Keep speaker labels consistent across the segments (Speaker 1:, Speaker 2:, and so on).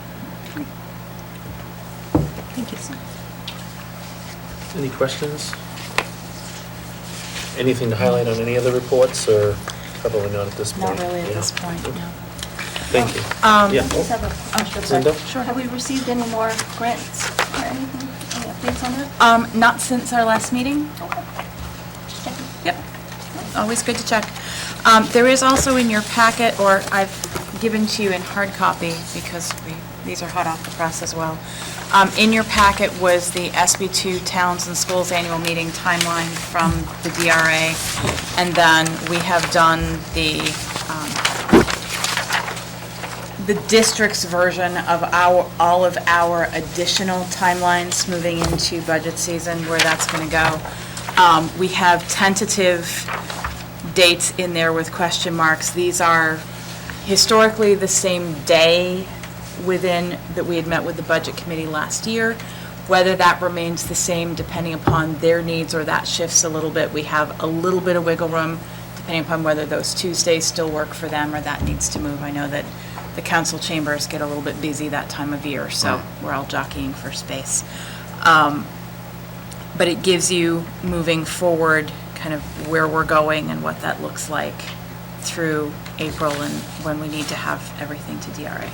Speaker 1: motion.
Speaker 2: Thank you, sir.
Speaker 3: Any questions? Anything to highlight on any other reports, or probably not at this
Speaker 2: Not
Speaker 3: point?
Speaker 2: really at
Speaker 3: Yeah.
Speaker 2: this point, no.
Speaker 3: Thank you.
Speaker 2: Um,
Speaker 3: Yeah.
Speaker 1: Just have a question.
Speaker 3: Linda?
Speaker 2: Sure.
Speaker 1: Have we received any more grants or anything, any updates on that?
Speaker 2: Um, Not since our last meeting?
Speaker 1: Okay. Just checking.
Speaker 2: Yep. Always good to check. Um, There is also in your packet, or I've given to you in hard copy, because we, these are hot off the press as well. Um, In your packet was the SB2 Towns and Schools Annual Meeting timeline from the DRA, and then we have done the the district's version of our, all of our additional timelines moving into budget season, where that's going to go. Um, We have tentative dates in there with question marks. These are historically the same day within, that we had met with the Budget Committee last year. Whether that remains the same depending upon their needs or that shifts a little bit, we have a little bit of wiggle room depending upon whether those Tuesdays still work for them or that needs to move. I know that the council chambers get a little bit busy that time of year, so we're all jockeying for space but it gives you moving forward, kind of where we're going and what that looks like through April and when we need to have everything to DRA.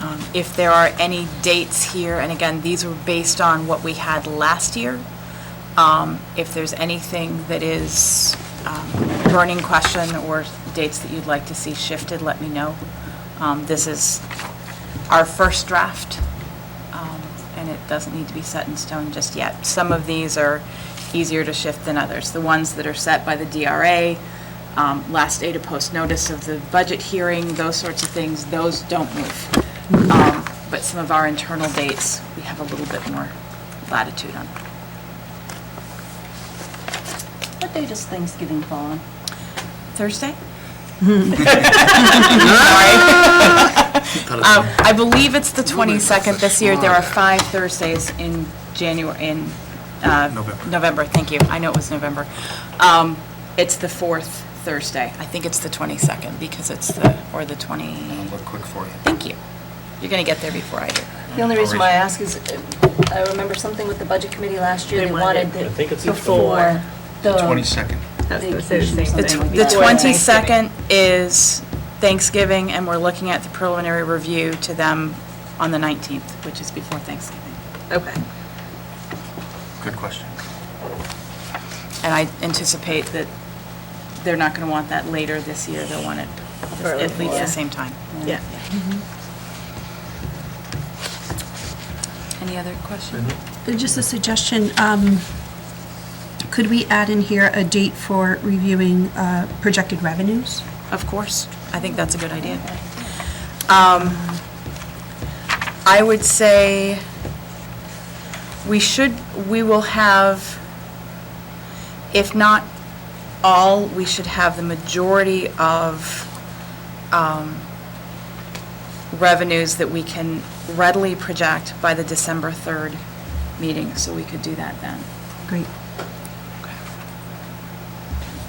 Speaker 2: Um, If there are any dates here, and again, these were based on what we had last year, um, if there's anything that is um, burning question or dates that you'd like to see shifted, let me know. Um, This is our first draft, um, and it doesn't need to be set in stone just yet. Some of these are easier to shift than others. The ones that are set by the DRA, um, last day to post notice of the budget hearing, those sorts of things, those don't move. Um, But some of our internal dates, we have a little bit more latitude on.
Speaker 1: What day does Thanksgiving fall on?
Speaker 2: Thursday? Um, I believe it's the 22nd this year. There are five Thursdays in January, in uh,
Speaker 4: November.
Speaker 2: November, thank you. I know it was November. Um, It's the fourth Thursday. I think it's the 22nd because it's the, or the 20,
Speaker 4: I'll look quick for you.
Speaker 2: thank you. You're going to get there before I do.
Speaker 1: The only reason why I ask is, uh, I remember something with the budget committee last year,
Speaker 5: They
Speaker 1: they
Speaker 5: wanted
Speaker 3: I
Speaker 1: wanted it
Speaker 3: think it's the
Speaker 1: before the.
Speaker 4: 22nd.
Speaker 5: That's the same
Speaker 1: Vacation or
Speaker 2: The tw-
Speaker 1: something. Thanksgiving.
Speaker 5: thing.
Speaker 2: the
Speaker 1: Before
Speaker 2: 22nd is Thanksgiving, and we're looking at the preliminary review to them on the 19th, which is before Thanksgiving.
Speaker 5: Okay.
Speaker 4: Good question.
Speaker 2: And I anticipate that they're not going to want that later this year. They'll want it
Speaker 5: Early.
Speaker 2: at least the same time.
Speaker 5: Yeah.
Speaker 1: Mm-hmm.
Speaker 2: Any other questions?
Speaker 6: Just a suggestion, um, could we add in here a date for reviewing uh, projected revenues?
Speaker 2: Of course. I think that's a good idea. Um, I would say we should, we will have, if not all, we should have the majority of um, revenues that we can readily project by the December 3rd meeting, so we could do that then.
Speaker 6: Great.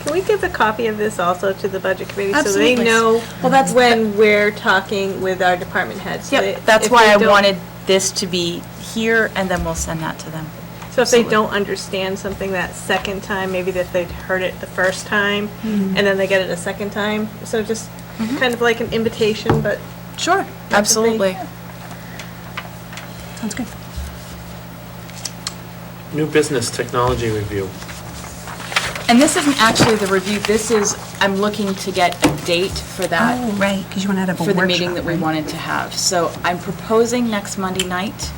Speaker 5: Can we give a copy of this also to the budget committee? So
Speaker 2: Absolutely.
Speaker 5: they know
Speaker 2: Well, that's-
Speaker 5: when we're talking with our department heads. so they-
Speaker 2: Yep, that's
Speaker 5: if
Speaker 2: why
Speaker 5: they
Speaker 2: I
Speaker 5: don't-
Speaker 2: wanted this to be here, and then we'll send that to them.
Speaker 5: So if they don't understand something that second time, maybe that they'd heard it the first time,
Speaker 2: Hmm.
Speaker 5: and then they get it a second time. So just
Speaker 2: Mm-hmm.
Speaker 5: kind of like an invitation, but
Speaker 2: Sure,
Speaker 5: they-
Speaker 2: absolutely.
Speaker 6: Sounds good.
Speaker 3: New business technology review.
Speaker 2: And this isn't actually the review, this is, I'm looking to get a date for
Speaker 6: Oh,
Speaker 2: that,
Speaker 6: right, because you want to have a
Speaker 2: Uh, for
Speaker 6: workshop.
Speaker 2: the meeting that we
Speaker 6: right?
Speaker 2: wanted to have. So I'm proposing next Monday night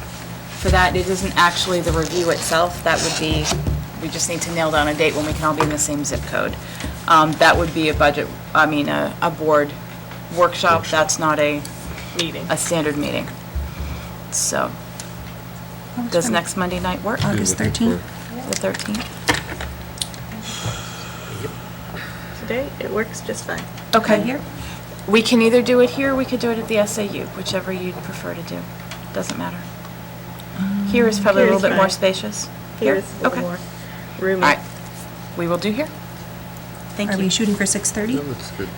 Speaker 2: for that. It isn't actually the review itself, that would be, we just need to nail down a date when we can all be in the same zip code. Um, That would be a budget, I mean, a, a board workshop, that's not a,
Speaker 5: meeting.
Speaker 2: a standard meeting. So,
Speaker 6: Oh, it's
Speaker 2: does
Speaker 6: fine.
Speaker 2: next Monday night work, the
Speaker 6: August 13th?
Speaker 2: 13th?
Speaker 5: Today, it works just fine.
Speaker 2: Okay.
Speaker 6: Right here?
Speaker 2: We can either do it here, we could do it at the SAU, whichever you'd prefer to do. Doesn't matter. Here is probably a
Speaker 5: Um, Here
Speaker 2: little
Speaker 5: is
Speaker 2: bit more
Speaker 5: fine.
Speaker 2: spacious.
Speaker 5: Here's a little
Speaker 2: Okay.
Speaker 5: more
Speaker 2: All
Speaker 5: roomy.
Speaker 2: right. We will do here. Thank you.
Speaker 6: Are we shooting for 6:30?
Speaker 4: That's good.